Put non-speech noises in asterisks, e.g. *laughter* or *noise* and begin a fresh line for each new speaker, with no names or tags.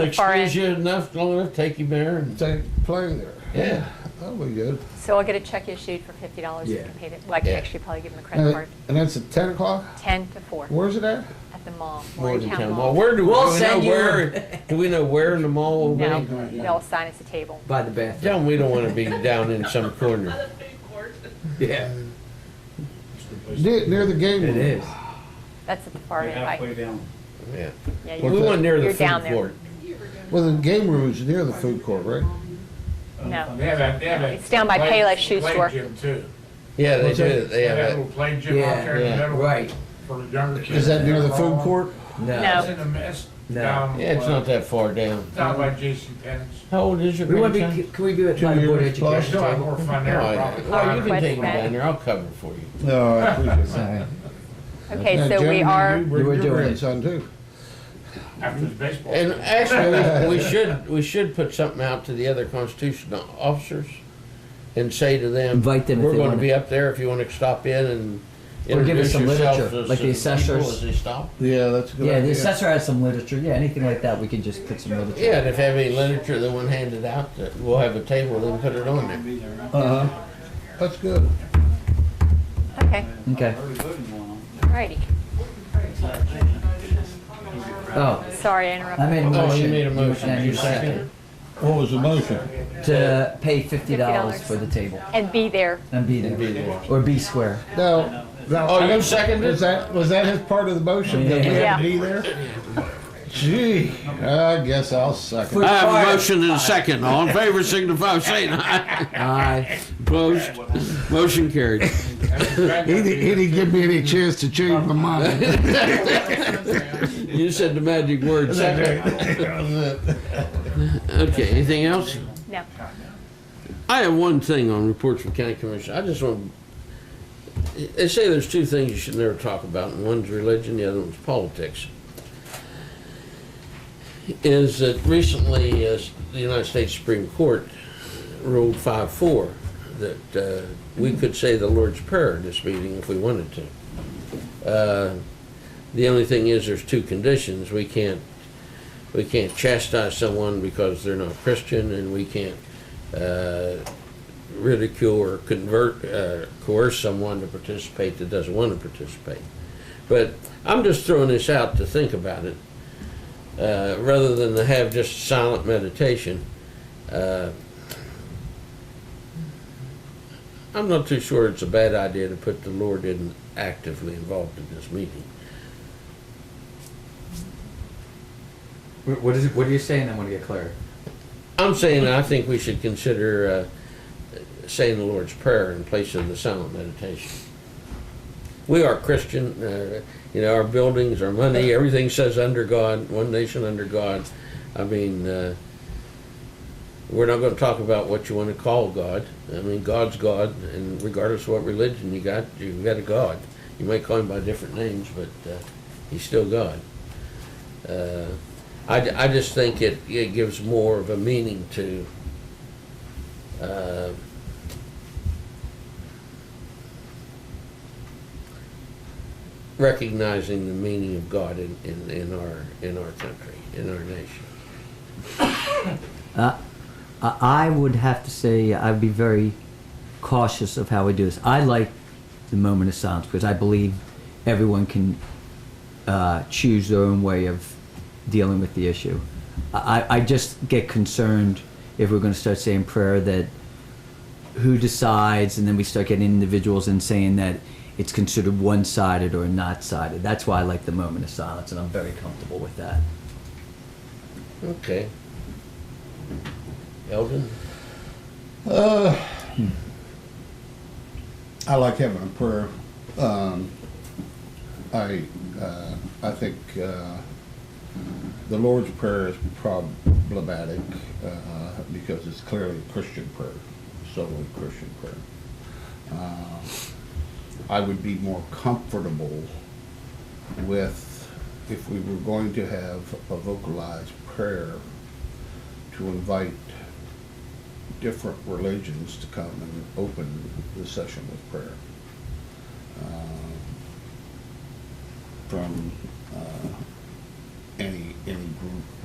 far
Excuse
as,
you enough, long enough, take you there and,
Take, play there.
yeah.
That'll be good.
so I'll get a check issued for fifty dollars
Yeah.
if you pay it, well, I can
Yeah.
actually probably give them a credit
And
card,
and that's at ten o'clock?
ten to four
Where's it at?
at the mall,
Morgantown
Morgantown
Mall.
Mall.
Where do, we
We'll
do we know
send you-
where, do we know where in the mall will
No,
be?
they'll assign us a table.
By the bathroom.
Tell 'em we don't wanna be down in some corner.
Yeah,
Near, near the game
it
room.
is.
That's at the far end. right?
down.
Yeah.
Yeah,
We
you're-
that?
want near the
You're down
food
there.
court.
Well, the game room is near the food court, right?
No.
They have a, they have a.
It's down by Payless Shoe
play
Store.
gym too.
Yeah, they
What's that?
do, they
They have a
have
little
it.
play gym out
Yeah,
there in
yeah,
the middle
Right,
for the younger kids.
Is that near the food court?
No.
no.
It's in the mess.
No.
down,
Yeah, it's
uh,
not that far down.
Down by Jason Penn's.
How old is your
We want to
grandson?
be, can we do it by the
Two years
board of
They
education
still have more
table?
fun
Oh,
there
yeah.
probably.
Well, you can
Request
take him
that.
down there, I'll cover for you.
No, I appreciate that. Now,
Okay, so we
Jeremy,
are,
You bring
You were
your
doing it.
grandson too.
After the baseball.
And actually, we we should, we should put something out to the other constitutional officers and say to them.
Invite them if
We're
they
gonna
want
be up there if you wanna stop in and
Or give
introduce
us some
yourself
literature,
to
like
some
the
people
assessors.
As they stop.
Yeah, that's a good
Yeah, the
idea.
assessor has some literature, yeah, anything like that, we can just put some literature.
Yeah, and if they have any literature they want handed out, that we'll have a table and put it on there.
Uh-huh. That's good.
okay,
Okay,
alrighty.
oh,
Sorry I interrupted.
I made a
Oh, you
motion.
made a motion.
and
You
you
seconded.
What was the motion?
second. To pay fifty dollars
$50.
for the table
And be there.
and be
And be
there,
there.
or be square.
Now, now.
Oh, you seconded?
Was that, was that his part of the motion? That we
Yeah.
had to be there? Gee, I guess I'll second.
For-
I have a motion and a second. All in favor, signify by saying aye.
*laughs* Aye.
Opposed? *laughs* Motion carried. *laughs*
He didn't, he didn't give me any chance to change my mind.
You said the magic *laughs* word, second. Okay, anything else?
No.
I have one thing on reports from county commission. I just want, they say there's two things you should never talk about, and one's religion, the other one's politics. Is that recently, uh, the United States Supreme Court ruled five four, that, uh, we could say the Lord's Prayer in this meeting if we wanted to. Uh, The only thing is, there's two conditions. We can't, we can't chastise someone because they're not Christian, and we can't uh, ridicule or convert, uh, coerce someone to participate that doesn't want to participate. But I'm just throwing this out to think about it, uh, rather than to have just silent meditation. Uh, I'm not too sure it's a bad idea to put the Lord in actively involved in this meeting.
Wh- What is, it- what are you saying, I wanna get clear?
I'm saying I think we should consider uh, saying the Lord's Prayer in place of the silent meditation. We are Christian, uh, you know, our buildings, our money, everything says under God, one nation under God. I mean, uh, we're not going to talk about what you want to call God. I mean, God's God, and regardless of what religion you got, you've got a God. You may call him by different names, but uh, he's still God. Uh, I, I just think it, it gives more of a meaning to, uh, recognizing the meaning of God in, in, in our, in our country, in our nation.
Uh, I I would have to say I'd be very cautious of how we do this. I like the moment of silence because I believe everyone can uh, choose their own way of dealing with the issue. I, I I just get concerned if we're going to start saying prayer that who decides, and then we start getting individuals and saying that it's considered one-sided or not sided. That's why I like the moment of silence, and I'm very comfortable with that.
Okay. Eldon?
Uh, I like having a prayer. Um, I uh, I think uh, the Lord's prayer is problematic uh, because it's clearly a Christian prayer, solely Christian prayer. Uh, I would be more comfortable with if we were going to have a vocalized prayer to invite different religions to come and open the session with prayer. Um, From uh, any, any group